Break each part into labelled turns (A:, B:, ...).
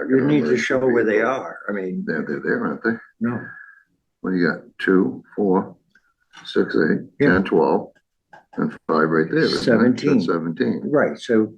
A: I
B: You
A: can
B: need to
A: remember.
B: show where they are. I mean,
A: They're, they're there, aren't they?
B: no,
A: What do you got? Two, four, six, eight,
B: Yeah.
A: ten, twelve, and five right there. isn't it?
B: Seventeen.
A: That's Seventeen,
B: right, so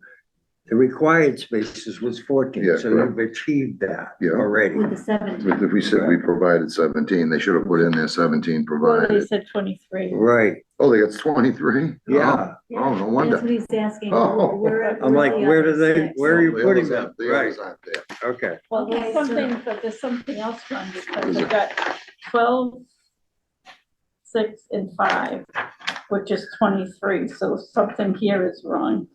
B: the required spaces was fourteen,
A: Yeah,
B: so
A: correct.
B: you've achieved that
A: Yeah.
B: already.
C: With the seventeen,
A: but if we said we provided seventeen, they should have put in there seventeen
C: well, they
A: provided.
C: said twenty-three.
B: Right,
A: Oh, they got twenty-three?
B: yeah.
A: Oh, no
C: That's
A: wonder.
C: what he's asking.
A: Oh.
C: where-
B: I'm like,
C: the
B: where do
C: other
B: they,
C: six?
B: where are you
A: The
B: putting
A: others
B: them?
A: aren't- The
B: Right,
A: others aren't there.
B: okay.
C: Well,
D: Okay,
C: there's
D: so-
C: something, but there's something else wrong because we've got twelve, six and five, which is twenty-three, so something here is wrong.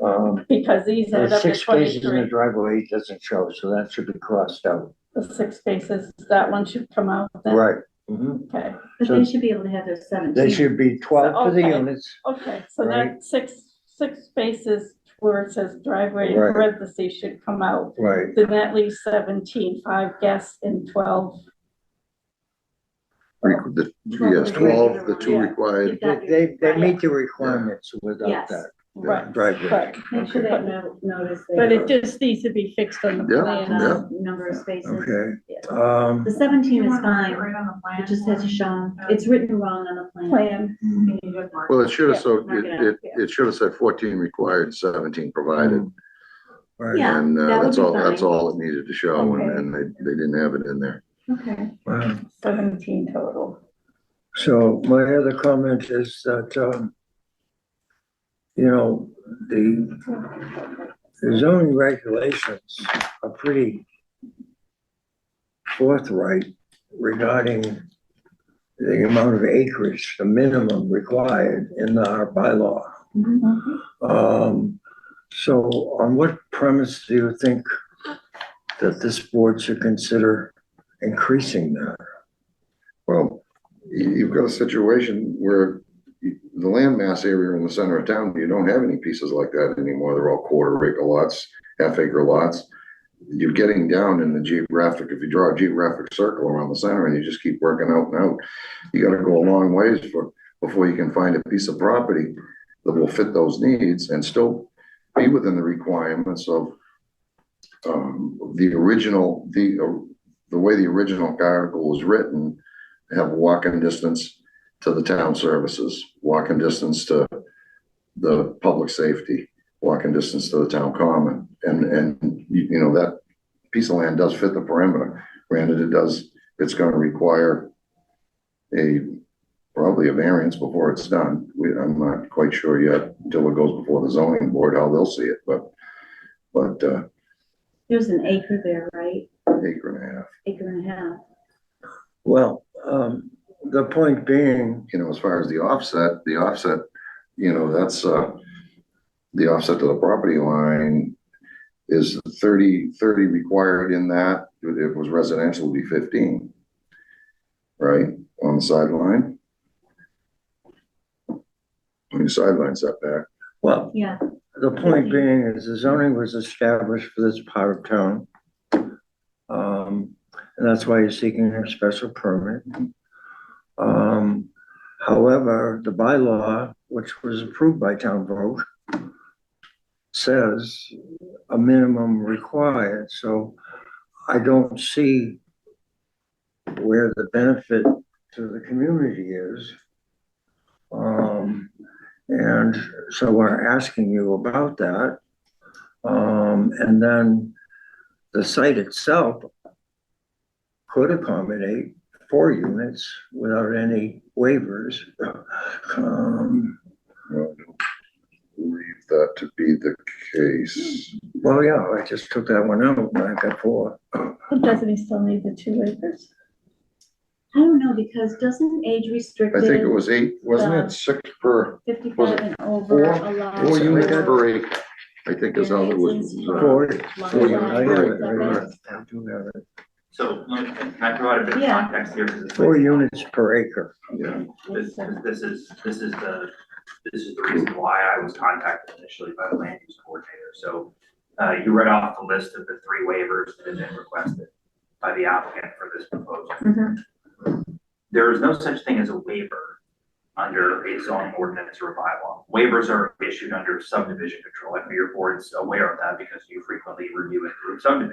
B: Um,
C: Because these add
B: there's
C: up to
B: six spaces in the
C: twenty-three,
B: driveway it doesn't show, so that should be crossed out.
C: the six spaces, that one should come out then.
B: Right. mhm.
C: Okay,
D: But
B: So-
D: they should be able to have their seventeen.
B: They should be twelve for the
C: Okay.
B: units.
C: okay, so
B: Right.
C: that six, six spaces where it says driveway in
B: Right.
C: parentheses should come out.
B: Right,
C: Then that leaves seventeen, five guests and twelve.
A: Re- the-
D: Twelve
A: Yes,
D: is
A: twelve,
D: right.
A: the two
C: Yeah.
A: required,
D: Got
B: They-
D: your-
B: they, they
C: right.
B: meet the requirements without
D: Yes.
B: that
C: Right,
B: driveway.
C: right.
D: Make sure that no- notice. they-
C: But it just needs to be fixed on the
A: Yeah,
D: plan,
C: plan.
D: uh, Number of spaces.
B: Okay, um,
D: The seventeen is fine, it just has to show, it's written wrong on the plan.
C: uh, Plan,
A: well, it should have,
C: Yeah,
A: so,
D: mark
A: it,
D: it up,
A: it,
C: yeah.
A: it should have said fourteen required, seventeen provided.
B: right.
D: Yeah,
A: And
D: that
A: uh,
D: would
A: that's
D: be
A: all, that's
D: fine.
A: all it needed to show, and,
C: Okay.
A: and they, they didn't have it in there.
D: Okay.
B: Wow.
C: seventeen total.
B: So my other comment is that, um, you know, the the zoning regulations are pretty forthright regarding the amount of acreage, the minimum required in our bylaw. Um, so on what premise do you think that this board should consider increasing that?
A: Well, you, you've got a situation where you- the land mass area in the center of town, you don't have any pieces like that anymore. They're all quarter acre lots, half acre lots. You're getting down in the geographic, if you draw a geographic circle around the center and you just keep working out and out, you gotta go a long ways for, before you can find a piece of property that will fit those needs and still be within the requirements of um, the original, the, uh, the way the original article was written, have walking distance to the town services, walking distance to the public safety, walking distance to the town common. And, and, you, you know, that piece of land does fit the perimeter. Granted, it does, it's gonna require a, probably a variance before it's done. We, I'm not quite sure yet until it goes before the zoning board, how they'll see it, but, but, uh,
D: There's an acre there, right?
A: acre and a half.
D: Acre and a half.
B: Well, um, the point being,
A: you know, as far as the offset, the offset, you know, that's, uh, the offset to the property line is 30 30 required in that, if it was residential, it'd be fifteen. Right, on the sideline? On your sideline setback,
B: Well,
D: Yeah,
B: the point being is the zoning was established for this part of town. Um, and that's why you're seeking a special permit. Um, however, the bylaw, which was approved by town vote, says a minimum required, so I don't see where the benefit to the community is. Um, and so we're asking you about that. Um, and then the site itself could accommodate four units without any waivers. Um,
A: you know, I don't believe that to be the case.
B: well, yeah, I just took that one out when I got four.
C: Doesn't he still need the two acres?
D: I don't know, because doesn't
A: I
D: age
A: think it
D: restricted
A: was eight, wasn't
D: Uh,
A: it six per, was
D: fifty-five
A: it
D: and over
A: four-
D: allowed?
A: four
B: It's
A: units
B: like-
A: per acre? I think is how it was.
D: Variances.
B: Four.
A: Four units
B: I have it, I
A: per
B: have
A: acre.
B: it, I do have it.
E: So let me- can I provide a bit of
D: Yeah.
E: context here? 'Cause it's-
B: Four units per acre.
A: Yeah.
E: This, 'cause this is, this is the, this is the reason why I was contacted initially by the land use coordinator. So uh, you read off the list of the three waivers that have been requested by the applicant for this proposal.
D: Mhm.
E: There is no such thing as a waiver under a zoning ordinance or a bylaw. Waivers are issued under subdivision control. I know your board's aware of that because you frequently review and approve subdivisions.